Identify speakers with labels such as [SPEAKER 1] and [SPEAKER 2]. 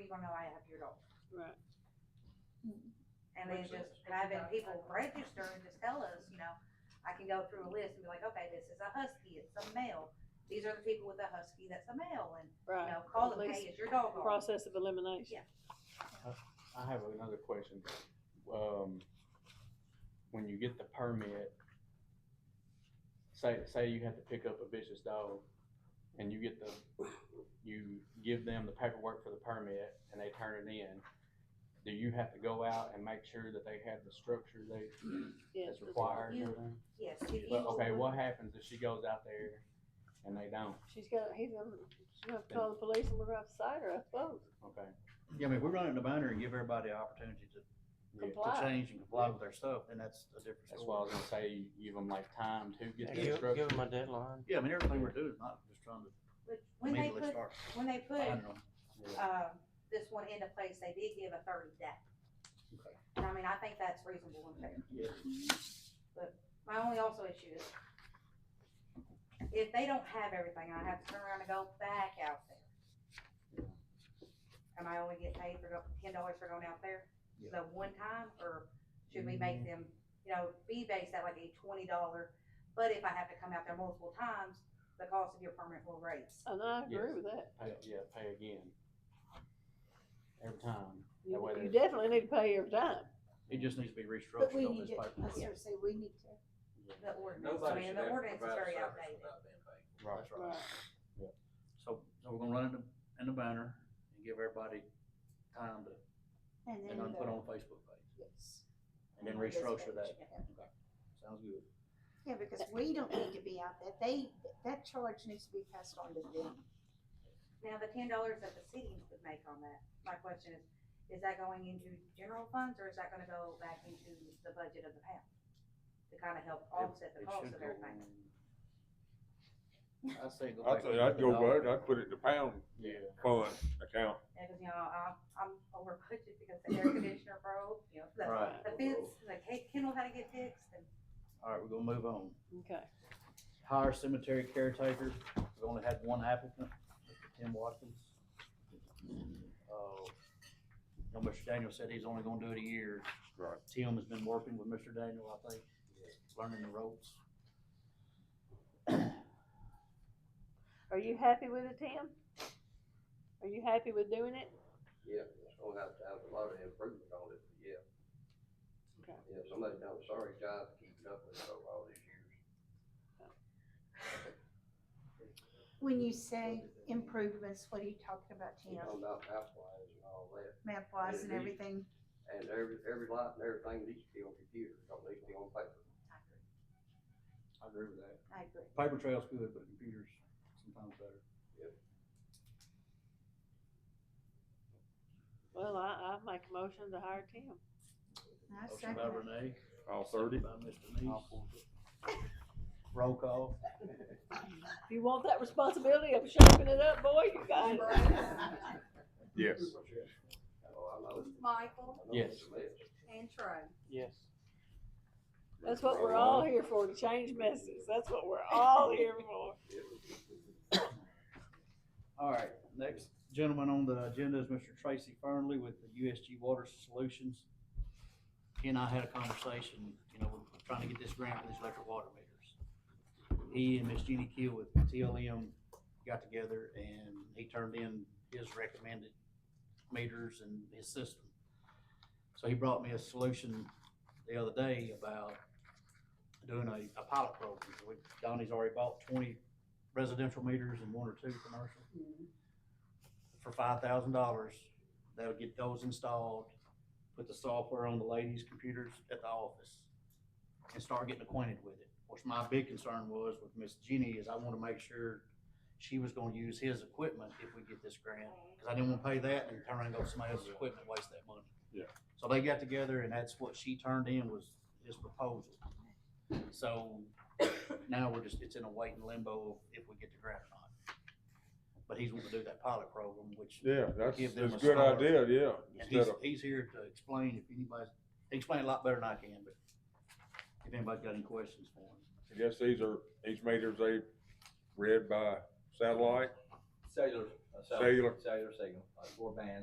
[SPEAKER 1] you gonna know I have your dog?
[SPEAKER 2] Right.
[SPEAKER 1] And they
[SPEAKER 3] Makes
[SPEAKER 1] just,
[SPEAKER 3] sense.
[SPEAKER 1] and I've been people register and just tell us, you know, I can go through a list and be like, okay, this is a husky, it's a male. These are the people with a husky that's a male and, you
[SPEAKER 2] Right.
[SPEAKER 1] know, call
[SPEAKER 2] At
[SPEAKER 1] them,
[SPEAKER 2] least
[SPEAKER 1] hey, is your dog on?
[SPEAKER 2] Process of elimination.
[SPEAKER 3] I have another question. Um, when you get the permit, say, say you had to pick up a vicious dog and you get the, you give them the paperwork for the permit and they turn it in. Do you have to go out and make sure that they have the structure they,
[SPEAKER 2] Yes.
[SPEAKER 3] that's required? and
[SPEAKER 1] You-
[SPEAKER 3] everything?
[SPEAKER 1] Yes. if you-
[SPEAKER 3] But, okay, what happens if she goes out there and they don't?
[SPEAKER 2] She's got, he's gonna, she's gonna have to call the police and we're gonna have to cite her, I suppose.
[SPEAKER 3] Okay,
[SPEAKER 4] Yeah, I mean, if we run it in the binder and give everybody the opportunity to,
[SPEAKER 3] Yeah.
[SPEAKER 4] to
[SPEAKER 2] Comply.
[SPEAKER 4] change and comply with their stuff, then that's a different
[SPEAKER 3] that's why I
[SPEAKER 4] story.
[SPEAKER 3] was gonna say, you give them like time to get
[SPEAKER 4] Yeah,
[SPEAKER 3] the
[SPEAKER 5] Give,
[SPEAKER 3] structure.
[SPEAKER 5] give them a deadline.
[SPEAKER 4] Yeah, I mean, everything we're doing is not just trying to
[SPEAKER 1] But When they
[SPEAKER 4] immediately
[SPEAKER 1] put,
[SPEAKER 4] start
[SPEAKER 1] when they put,
[SPEAKER 4] finding them.
[SPEAKER 3] Yeah.
[SPEAKER 1] um, this one into place, they did give a thirty day.
[SPEAKER 4] Okay.
[SPEAKER 1] And I mean, I think that's reasonable and fair.
[SPEAKER 4] Yeah.
[SPEAKER 1] My only also issue is, if they don't have everything, I have to turn around and go back out there. Am I only getting paid for go, ten dollars for going out there, the one time, or should we make them, you know, be based at like a twenty dollar? But if I have to come out there multiple times, the cost of your permit will raise.
[SPEAKER 2] And I agree
[SPEAKER 3] Yes.
[SPEAKER 2] with that.
[SPEAKER 3] Pay, yeah, pay again. Every time.
[SPEAKER 2] You
[SPEAKER 3] That way
[SPEAKER 2] you
[SPEAKER 3] there's-
[SPEAKER 2] definitely need to pay every time.
[SPEAKER 4] It just needs to be
[SPEAKER 6] But
[SPEAKER 4] restructured
[SPEAKER 6] we
[SPEAKER 4] on
[SPEAKER 6] need
[SPEAKER 4] this
[SPEAKER 6] to,
[SPEAKER 4] paper.
[SPEAKER 6] I seriously, we need to.
[SPEAKER 1] The ordinance, I
[SPEAKER 7] Nobody
[SPEAKER 1] mean,
[SPEAKER 7] should
[SPEAKER 1] the
[SPEAKER 7] have to
[SPEAKER 1] ordinance is
[SPEAKER 7] provide a
[SPEAKER 1] very
[SPEAKER 7] service
[SPEAKER 1] outdated.
[SPEAKER 7] without being paid.
[SPEAKER 3] Right.
[SPEAKER 4] That's
[SPEAKER 2] Right.
[SPEAKER 4] right. So, so we're gonna run it in the- in the binder and give everybody time to,
[SPEAKER 6] And then
[SPEAKER 4] and then
[SPEAKER 6] the-
[SPEAKER 4] put on a Facebook page
[SPEAKER 6] yes.
[SPEAKER 4] and then
[SPEAKER 6] On this
[SPEAKER 4] restructure
[SPEAKER 6] page,
[SPEAKER 4] that.
[SPEAKER 6] yeah.
[SPEAKER 4] Okay. Sounds good.
[SPEAKER 6] Yeah, because we don't need to be out there. They, that charge needs to be passed on to them.
[SPEAKER 1] Now, the ten dollars that the city would make on that, my question is, is that going into general funds, or is that gonna go back into the budget of the pound? To kinda help offset the
[SPEAKER 4] It
[SPEAKER 1] cost
[SPEAKER 4] should
[SPEAKER 1] of
[SPEAKER 4] go-
[SPEAKER 1] everything?
[SPEAKER 4] I'd say go
[SPEAKER 8] I'd
[SPEAKER 4] back
[SPEAKER 8] say,
[SPEAKER 4] up
[SPEAKER 8] I'd
[SPEAKER 4] to
[SPEAKER 8] go
[SPEAKER 4] the dollar.
[SPEAKER 8] back, I'd put it in the pound
[SPEAKER 3] Yeah.
[SPEAKER 8] fund account.
[SPEAKER 1] Yeah, cause you know, I'm, I'm over budget because the air conditioner broke, you know, the,
[SPEAKER 4] Right,
[SPEAKER 1] the fence, the ca- kennel had to get fixed, and
[SPEAKER 4] all right, we're gonna move on.
[SPEAKER 2] Okay.
[SPEAKER 4] Hire cemetery caretaker, we only had one applicant, Mr. Tim Watkins. Uh, now, Mr. Daniel said he's only gonna do it a year.
[SPEAKER 8] Right.
[SPEAKER 4] Tim has been working with Mr. Daniel, I think, learning the ropes.
[SPEAKER 2] Are you happy with it, Tim? Are you happy with doing it?
[SPEAKER 7] Yeah, it's gonna have to have a lot of improvement on it, but yeah.
[SPEAKER 2] Okay.
[SPEAKER 7] Yeah, somebody done a sorry job keeping up with it over all these years.
[SPEAKER 6] When you say improvements, what are you talking about,
[SPEAKER 7] You
[SPEAKER 6] Tim?
[SPEAKER 7] know, about map lines and all that,
[SPEAKER 6] Map wise and
[SPEAKER 7] Yeah, we-
[SPEAKER 6] everything?
[SPEAKER 7] and every, every lot and everything needs to be on computer, don't need to be on paper.
[SPEAKER 4] I agree with that.
[SPEAKER 6] I agree.
[SPEAKER 4] Paper trail's good, but computers sometimes better.
[SPEAKER 2] Well, I, I make a motion to hire Tim.
[SPEAKER 6] I
[SPEAKER 4] Motion
[SPEAKER 6] second
[SPEAKER 4] by
[SPEAKER 6] it.
[SPEAKER 4] Renee,
[SPEAKER 8] All
[SPEAKER 4] second
[SPEAKER 8] thirty?
[SPEAKER 4] by Mr. Neese. Roll call.
[SPEAKER 2] If you want that responsibility of shaping it up, boy, you got it.
[SPEAKER 8] Yes.
[SPEAKER 7] Oh, I know.
[SPEAKER 9] Michael
[SPEAKER 7] I know
[SPEAKER 3] Yes.
[SPEAKER 7] it's a mess.
[SPEAKER 9] and Trey.
[SPEAKER 5] Yes.
[SPEAKER 2] That's what
[SPEAKER 7] Uh,
[SPEAKER 2] we're all here for, to change messages. That's what we're all here for.
[SPEAKER 4] All right, next gentleman on the agenda is Mr. Tracy Fernley with the USG Water Solutions. He and I had a conversation, you know, we're trying to get this grant for these electric water meters. He and Miss Jeannie Keel with TLM got together and he turned in his recommended meters and his system. So he brought me a solution the other day about doing a, a pilot program. We- Donnie's already bought twenty residential meters and one or two commercial for five thousand dollars. They'll get those installed, put the software on the ladies' computers at the office, and start getting acquainted with it. Which my big concern was with Miss Jenny is I wanna make sure she was gonna use his equipment if we get this grant, cause I didn't wanna pay that and turn around and go to somebody else's equipment, and waste that money.
[SPEAKER 8] Yeah.
[SPEAKER 4] So they got together and that's what she turned in was his proposal. So now we're just, it's in a waiting limbo if we get the grant or not. But he's wanting to do that pilot program, which
[SPEAKER 8] Yeah, that's,
[SPEAKER 4] Give them
[SPEAKER 8] that's a
[SPEAKER 4] a
[SPEAKER 8] good
[SPEAKER 4] start.
[SPEAKER 8] idea, yeah.
[SPEAKER 4] and he's,
[SPEAKER 8] Instead of,
[SPEAKER 4] he's here to explain if anybody's, he explained a lot better than I can, but if anybody's got any questions for him.
[SPEAKER 8] I guess these are, each meter's they read by satellite.
[SPEAKER 7] Cellular,
[SPEAKER 8] Cellular.
[SPEAKER 7] cellular signal, like four bands,